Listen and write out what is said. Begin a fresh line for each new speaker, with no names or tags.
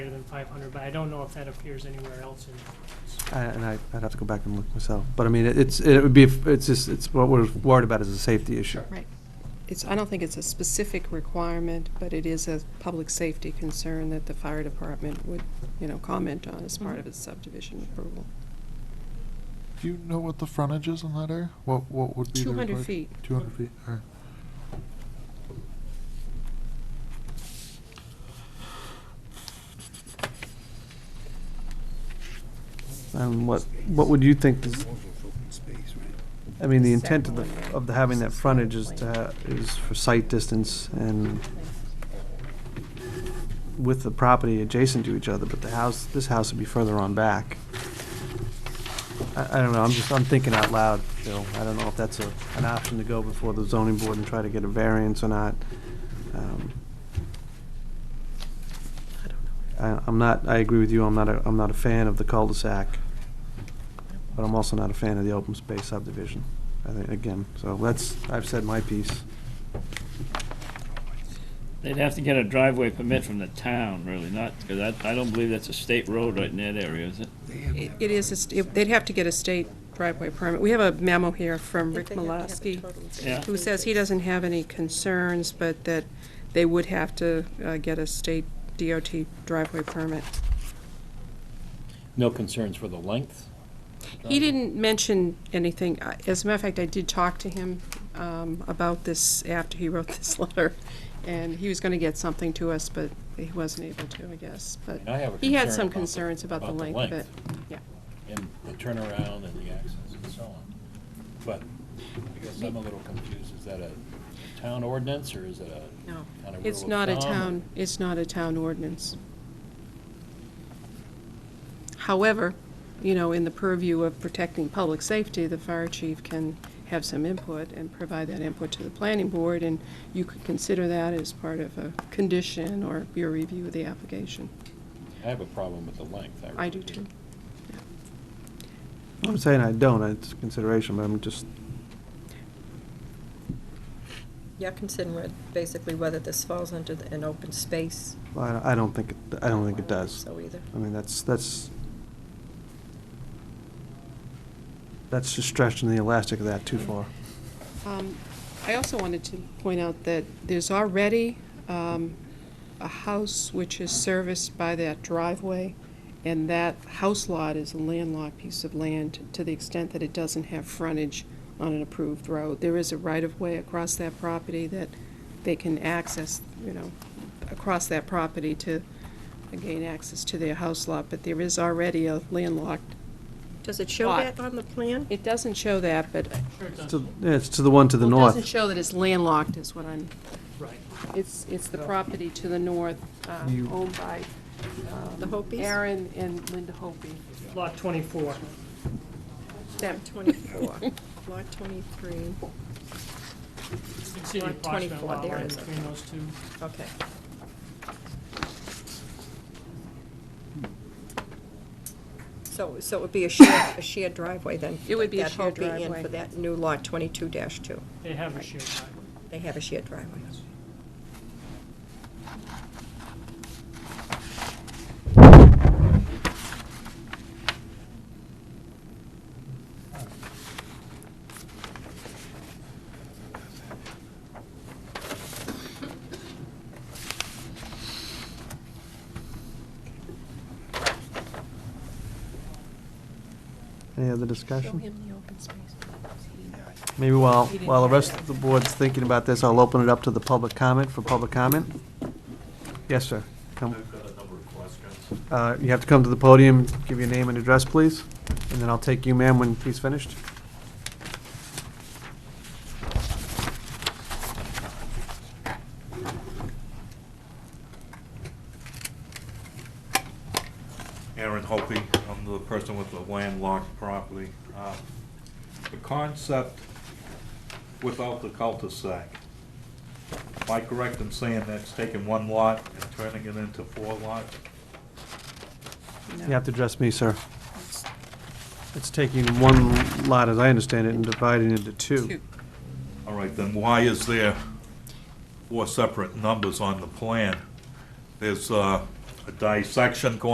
than five hundred, but I don't know if that appears anywhere else in.
I- And I, I'd have to go back and look myself, but I mean, it- it's, it would be, it's just, it's what we're worried about is a safety issue.
Right. It's, I don't think it's a specific requirement, but it is a public safety concern that the fire department would, you know, comment on as part of its subdivision approval.
Do you know what the frontage is on that area? What, what would be the?
200 feet.
Two hundred feet, all right.
And what, what would you think, is- I mean, the intent of the, of the having that frontage is to, ha- is for sight distance and with the property adjacent to each other, but the house, this house would be further on back. I, I don't know, I'm just, I'm thinking out loud, Bill. I don't know if that's a, an option to go before the zoning board and try to get a variance or not. Um,
I don't know.
I, I'm not, I agree with you, I'm not a, I'm not a fan of the cul-de-sac, but I'm also not a fan of the open space subdivision, I think, again, so that's, I've said my piece.
They'd have to get a driveway permit from the town, really, not, because I, I don't believe that's a state road right in that area, is it?
It it is, a st- they'd have to get a state driveway permit. We have a memo here from Rick Malasky,
Yeah.
who says he doesn't have any concerns, but that they would have to uh, get a state DOT driveway permit.
No concerns for the length?
He didn't mention anything. I- As a matter of fact, I did talk to him um, about this after he wrote this letter, and he was going to get something to us, but he wasn't able to, I guess. But
I have a
he had
concern
some
about the-
concerns about the
about the
length of it.
length.
Yeah.
And the turnaround and the access and so on. But I guess I'm a little confused, is that a town ordinance or is it a
No.
kind of rule of thumb?
It's not a town, it's not a town ordinance. However, you know, in the purview of protecting public safety, the fire chief can have some input and provide that input to the planning board, and you could consider that as part of a condition or your review of the application.
I have a problem with the length.
I
really
do too.
I'm saying I don't, it's a consideration, but I'm just,
You're considering basically whether this falls under the- an open space.
I, I don't think, it- I don't think it does.
So either.
I mean, that's, that's, that's just stretching the elastic of that too far.
Um, I also wanted to point out that there's already um, a house which is serviced by that driveway, and that house lot is a landlocked piece of land to the extent that it doesn't have frontage on an approved road. There is a right-of-way across that property that they can access, you know, across that property to gain access to their house lot, but there is already a landlocked.
Does it show
Lot.
that on the plan?
It doesn't show that, but
It's to- yeah, It's to the one to the north.
it doesn't show that it's landlocked is what I'm
Right.
It's, it's the property to the north, uh,
You-
owned by um,
The Hopis?
Aaron and Linda Hopi.
Lot twenty-four.
That-
Twenty-four, lot twenty-three,
You can see the
Lot
approximate
24,
lot
there
line
it is.
between those two.
okay. So, so it would be a shared, a shared driveway then?
It would be a
that
shared
Hopi in
driveway.
For that new lot twenty-two two.
They have a shared driveway.
They have a shared driveway.
Any other discussion? Maybe while, while the rest of the board's thinking about this, I'll open it up to the public comment, for public comment. Yes, sir. Come. Uh, You have to come to the podium, give your name and address, please, and then I'll take you, ma'am, when he's finished.
Aaron Hopi, I'm the person with the landlocked property. Uh, The concept without the cul-de-sac, am I correct in saying that's taking one lot and turning it into four lots?
You have to address me, sir. It's taking one lot, as I understand it, and dividing into two.
All right, then why is there four separate numbers on the plan? There's uh, a dissection going